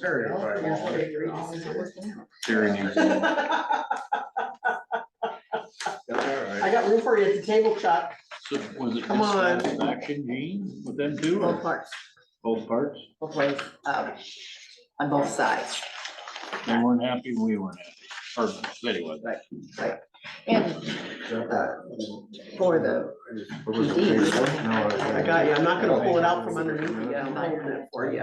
Terry, if I want. Karen, you- I That's got room for you at the table, Chuck, so was it Come on. dissatisfaction, Gene, with them two both or parts, both parts? both ways, um, on both sides. They weren't happy, we weren't happy, or the city wasn't. And all right. uh, for the, What was the page? No, I got you, I'm not gonna pull it out from underneath you, I'm holding it for you.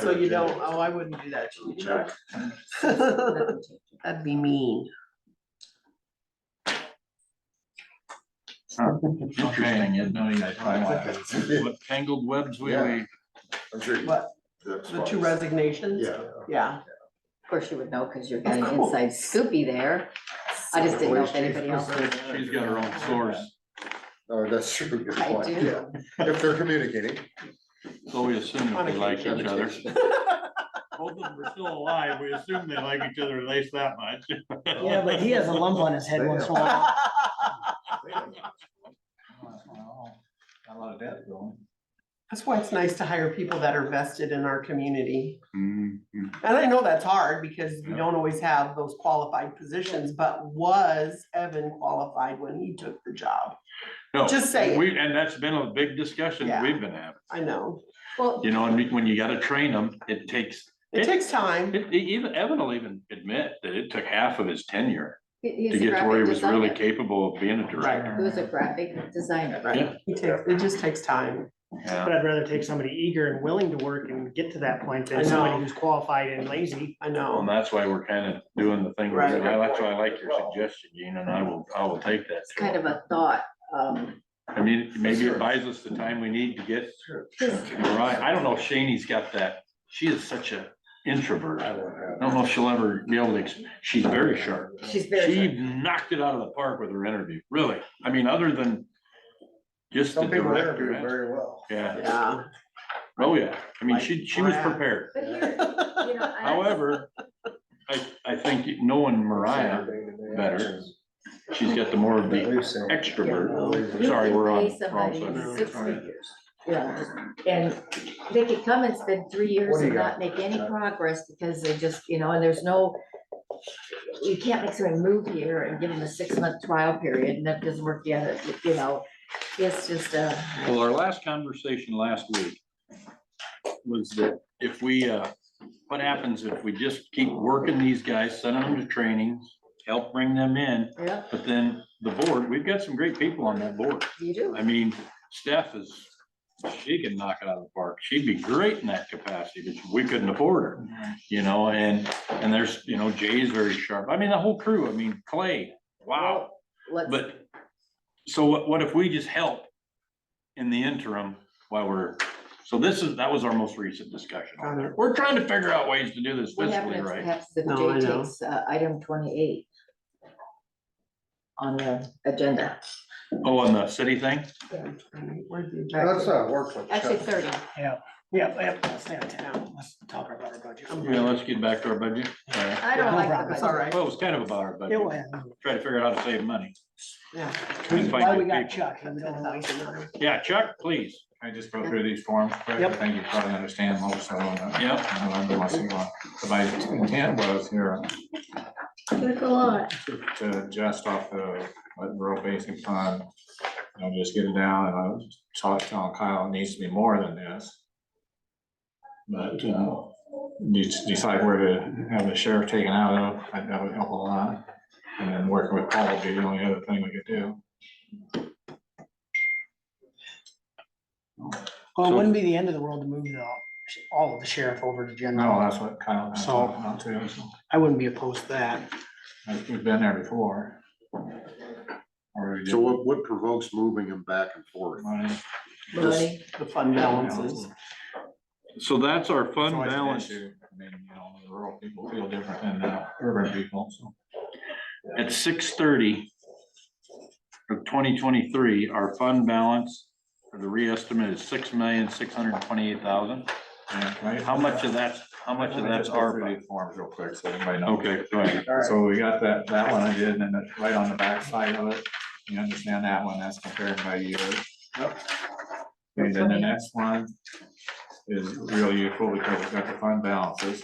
So you don't, oh, I wouldn't do that to you, Chuck. That'd be mean. Interesting, you know, you find out I'm what tangled webs we, Yeah. we, sure. you- What, that's the two fine. resignations? Yeah. Yeah, of course you would know, because you're getting Of course. inside scoopy there. I just didn't know if anybody else would. she's got her own source, Oh, that's true. good I point, do. yeah. If they're communicating. so we assume that they like each other. Communication. Both of them are still alive, we assume they like each other at least that much. Yeah, but he has a lump on his head once in a while. A lot of debt going. that's why it's nice to hire people that are vested in our community. Mhm. And I know that's hard because we Yeah. don't always have those qualified positions, but was Evan qualified when he took the job? No, Just saying. We, and that's been a big discussion Yeah. we've been having, I know, Well, you know, and when you gotta train them, it takes it It- takes time. It, it even, Evan will even admit that it took half of his tenure he- he's to a get to where he graphic was really designer. capable of being a director. He was a graphic designer. Yeah. It takes, it just takes time. Yeah. But I'd rather take somebody eager and willing to work and get to that point I than know. somebody who's qualified and lazy. I And know. that's why we're kind of doing the thing, we're Right. doing. I- that's why I like your suggestion, Gene, and I will, I will take that. It's kind of a thought, um, I mean, maybe it buys us the time we need to get, his- right, I don't know if Shaney's got that, she is such a introvert. I don't know if she'll ever be able to, ex- she's very sharp, she's she very, knocked it out of the park with her interview, really, I mean, other than just the Some people interview director, very well. yeah. Yeah, Oh, yeah, I mean, she, Like, she was wow. prepared, but here, you know, I- however, I, I think knowing Mariah, better. she's got the more of the extrovert. you Sorry, can we're on pay wrong somebody side. Six figures, you know, and they could come and spend three years What do you and not make any progress because they just, you know, and there's no, you can't make somebody move here and give them a six-month trial period and that doesn't work yet, you know, it's just, uh, Well, our last conversation last week was that if we, uh, what happens if we just keep working these guys, sending them to trainings, help bring them in, yeah, but then the board, we've got some great people on that board. you do. I mean, Steph is, she can knock it out of the park. She'd be great in that capacity, but we couldn't afford her. You know, and, and there's, you know, Jay's very sharp. I mean, the whole crew, I mean, Clay, wow. Let's, But, so what, what if we just help in the interim while we're, so this is, that was our most recent discussion. on it. We're trying to figure out ways to do this what fiscally happens right. perhaps if No, I Jay know. takes, uh, item twenty-eight on the agenda? Oh, and the city thing? Where'd the agenda- That's not work for. Actually, thirty, Yeah, yeah, let's stay on town. Let's talk about our budget. Yeah, let's get back to our budget. All right. I don't No like the problem. budget. It's all right. Well, it was kind of about our It will budget, happen. try to figure out how to save money. Yeah. and find Why we good got people. Chuck. and we don't waste it. Yeah, Chuck, please. I just go through these forms quick, I Yep. think you probably understand most of them. and Yep. I learned them once in a while. But My intent was here There's a lot. to adjust off the like, rural basic fund, you know, just get it down, and I was talking to Kyle, it needs to be more than this. But, uh, you just decide where to have the sheriff taken out of, I- that would help a lot, and then working with Paul would be the only other thing we could do. Well, it wouldn't be the end of the world to move the, all of the sheriff over to No, general. Oh, that's what Kyle. and I So- talked about too, so. I wouldn't be opposed to that. Like, We've been there before. Or we So did what, what provokes moving them back and forth? money. Money, The fund balances. So that's our It's fund always an balance. issue. I mean, you know, the rural people feel different than the urban people, so. At six thirty of twenty twenty-three, our fund balance for the reestimate is six million, six hundred and twenty-eight thousand. yeah, right? How much of that's, how much of Let me that's just go through ARPA? these Forms real quick, so everybody knows. Okay, go ahead. So we got that, that one I did, and then that's right on the back side of it, you understand that one, that's comparing by year. And then the next one is real useful because it's got the fund balances.